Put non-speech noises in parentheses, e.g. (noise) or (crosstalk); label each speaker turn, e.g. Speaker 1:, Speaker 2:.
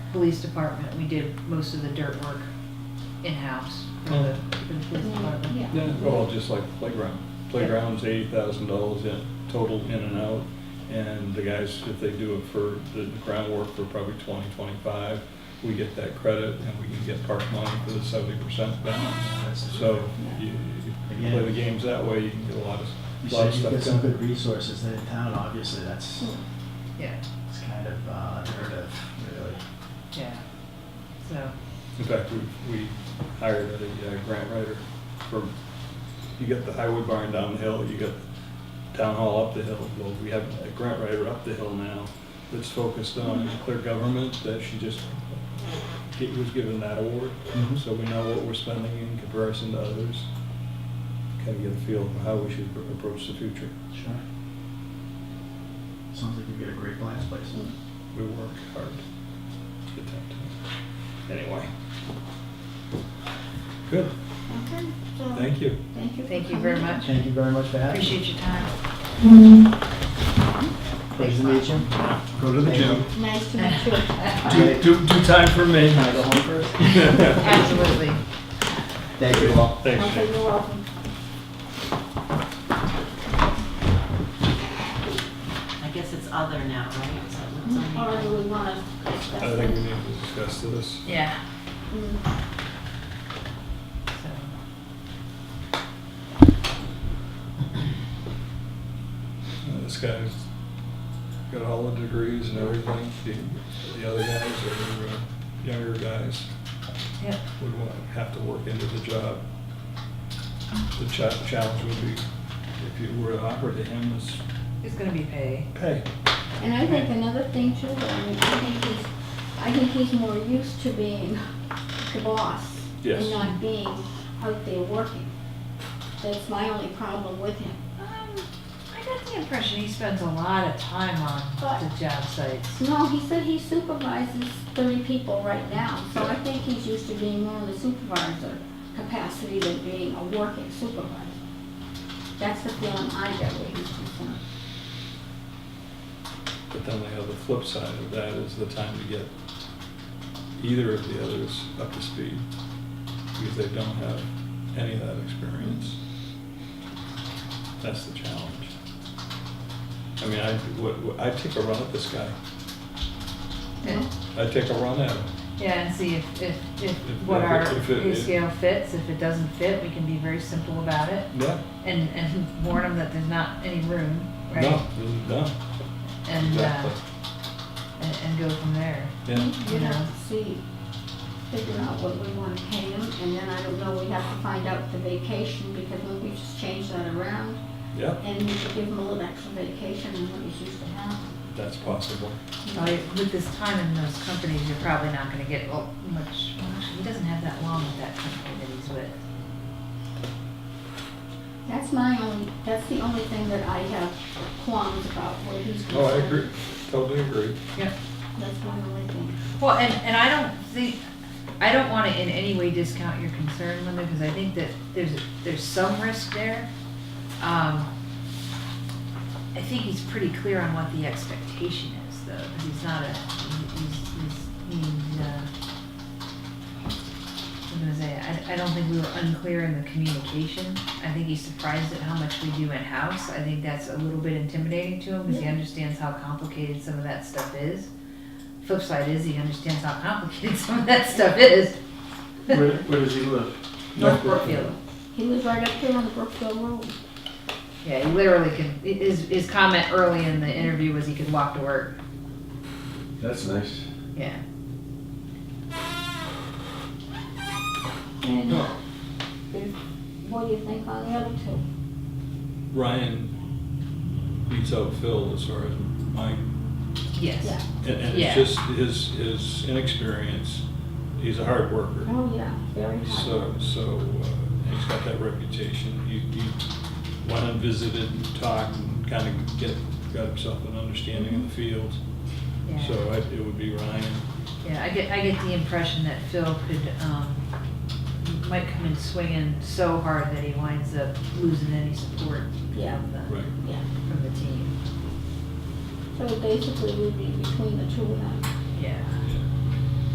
Speaker 1: police department, we did most of the dirt work in-house for the, for the police department.
Speaker 2: Yeah.
Speaker 3: Yeah, well, just like playground. Playground's eighty thousand dollars in, total in and out. And the guys, if they do it for the groundwork for probably twenty, twenty-five, we get that credit and we can get park money for the seventy percent balance. So you, if you play the games that way, you can get a lot
Speaker 4: You
Speaker 3: of, lot
Speaker 4: said
Speaker 3: of
Speaker 4: you get some
Speaker 3: stuff
Speaker 4: good
Speaker 3: done.
Speaker 4: resources there in town, obviously, that's,
Speaker 2: Hmm.
Speaker 1: Yeah,
Speaker 4: it's kind of uh, unheard of, really.
Speaker 1: yeah. So,
Speaker 3: In fact, we, we hired a uh, grant writer for, you got the highway barn down the hill, you got town hall up the hill. Well, we have a grant writer up the hill now that's focused on clear government, that she just get- was given that award.
Speaker 4: Mhm.
Speaker 3: So we know what we're spending in comparison to others. Kind of get a feel for how we should approach the future.
Speaker 4: Sure. Sounds like you get a great blast place.
Speaker 2: Hmm.
Speaker 3: We work hard to attempt to. Anyway. Good,
Speaker 2: Okay, so.
Speaker 3: thank you.
Speaker 2: Thank you. for
Speaker 1: thank you very
Speaker 2: coming.
Speaker 1: much.
Speaker 4: Thank you very much for having me.
Speaker 1: Appreciate your time.
Speaker 4: Pleasure to meet you.
Speaker 3: Go to the gym.
Speaker 2: Nice to meet
Speaker 1: (laughs)
Speaker 2: you.
Speaker 3: Do, do, do time for me.
Speaker 4: Can I go home first?
Speaker 1: Absolutely.
Speaker 4: Thank you all.
Speaker 3: Thanks,
Speaker 2: Okay,
Speaker 3: Jim.
Speaker 2: you're welcome.
Speaker 5: I guess it's other now, right? So it's only-
Speaker 2: All right, we want to discuss
Speaker 3: I think we
Speaker 2: it.
Speaker 3: need to discuss this. Uh,
Speaker 1: Yeah. Mm-hmm.
Speaker 2: Mm,
Speaker 1: So.
Speaker 3: Uh, This guy's got all the degrees and everything. The, the other guys are uh, younger guys,
Speaker 1: Yep,
Speaker 3: would want, have to work into the job. The cha- challenge would be, if you were to offer to him, is
Speaker 1: it's gonna be pay.
Speaker 3: pay.
Speaker 2: And I think another thing too, I mean, I think he's, I think he's more used to being the boss.
Speaker 3: Yes.
Speaker 2: And not being out there working. That's my only problem with him.
Speaker 1: Um, I got the impression he spends a lot of time on the job sites.
Speaker 2: No, he said he supervises thirty people right now, so I think he's used to being more in the supervisor capacity than being a working supervisor. That's the feeling I get where he's concerned.
Speaker 3: But then they have the flip side of that is the time to get either of the others up to speed because they don't have any of that experience. That's the challenge. I mean, I, what, what- I'd take a run at this guy.
Speaker 1: Yeah.
Speaker 3: I'd take a run at him.
Speaker 1: Yeah, and see if, if, if what our
Speaker 3: If it-
Speaker 1: pay scale fits, if it doesn't fit, we can be very simple about it
Speaker 3: No,
Speaker 1: and, and warn them that there's not any room, right?
Speaker 3: no, no,
Speaker 1: And, uh,
Speaker 3: exactly.
Speaker 1: and, and go from there.
Speaker 3: Yeah,
Speaker 2: We have to see, figure out what we want to pay him, and then I don't know, we have to find out the vacation, because we we just changed that around,
Speaker 3: yeah,
Speaker 2: and we could give him a little extra vacation than what he's used to having.
Speaker 3: that's possible.
Speaker 1: Well, With this time in those companies, you're probably not gonna get well, much, well, actually, he doesn't have that long with that company that he's with.
Speaker 2: That's my only, that's the only thing that I have qualms about, where he's concerned.
Speaker 3: No, Oh, I agree, totally agree.
Speaker 1: Yeah.
Speaker 2: That's my only thing.
Speaker 1: Well, and, and I don't think, I don't want to in any way discount your concern, Linda, because I think that there's, there's some risk there. Um, I think he's pretty clear on what the expectation is, though, because he's not a, he's, he's, he's, uh, I'm gonna say, I, I don't think we were unclear in the communication. I think he's surprised at how much we do in-house. I think that's a little bit intimidating to him, because he understands how complicated some of that stuff is flip side is he understands how complicated (laughs) some of that stuff is.
Speaker 4: Where, where does he live?
Speaker 1: North Brookfield.
Speaker 2: He was right up here on the Brookfield Road.
Speaker 1: Yeah, he literally can. His his comment early in the interview was he could walk to work.
Speaker 6: That's nice.
Speaker 1: Yeah.
Speaker 2: And there's- what do you think on the other two?
Speaker 3: Ryan beats out Phil as far as my
Speaker 1: Yes.
Speaker 2: Yeah.
Speaker 3: And, and
Speaker 1: Yeah.
Speaker 3: it's just his, his inexperience, he's a hard worker.
Speaker 2: Oh, yeah, very high.
Speaker 3: So, so uh, he's got that reputation. You, you went and visited and talked and kind of get, got himself an understanding of the field.
Speaker 1: Yeah.
Speaker 3: So I, it would be Ryan.
Speaker 1: Yeah, I get, I get the impression that Phil could, um, might come in swinging so hard that he winds up losing any support
Speaker 2: Yeah,
Speaker 1: from the,
Speaker 3: Right.
Speaker 2: yeah.
Speaker 1: from the team.
Speaker 2: So basically, we'd be between the two of them.
Speaker 1: Yeah.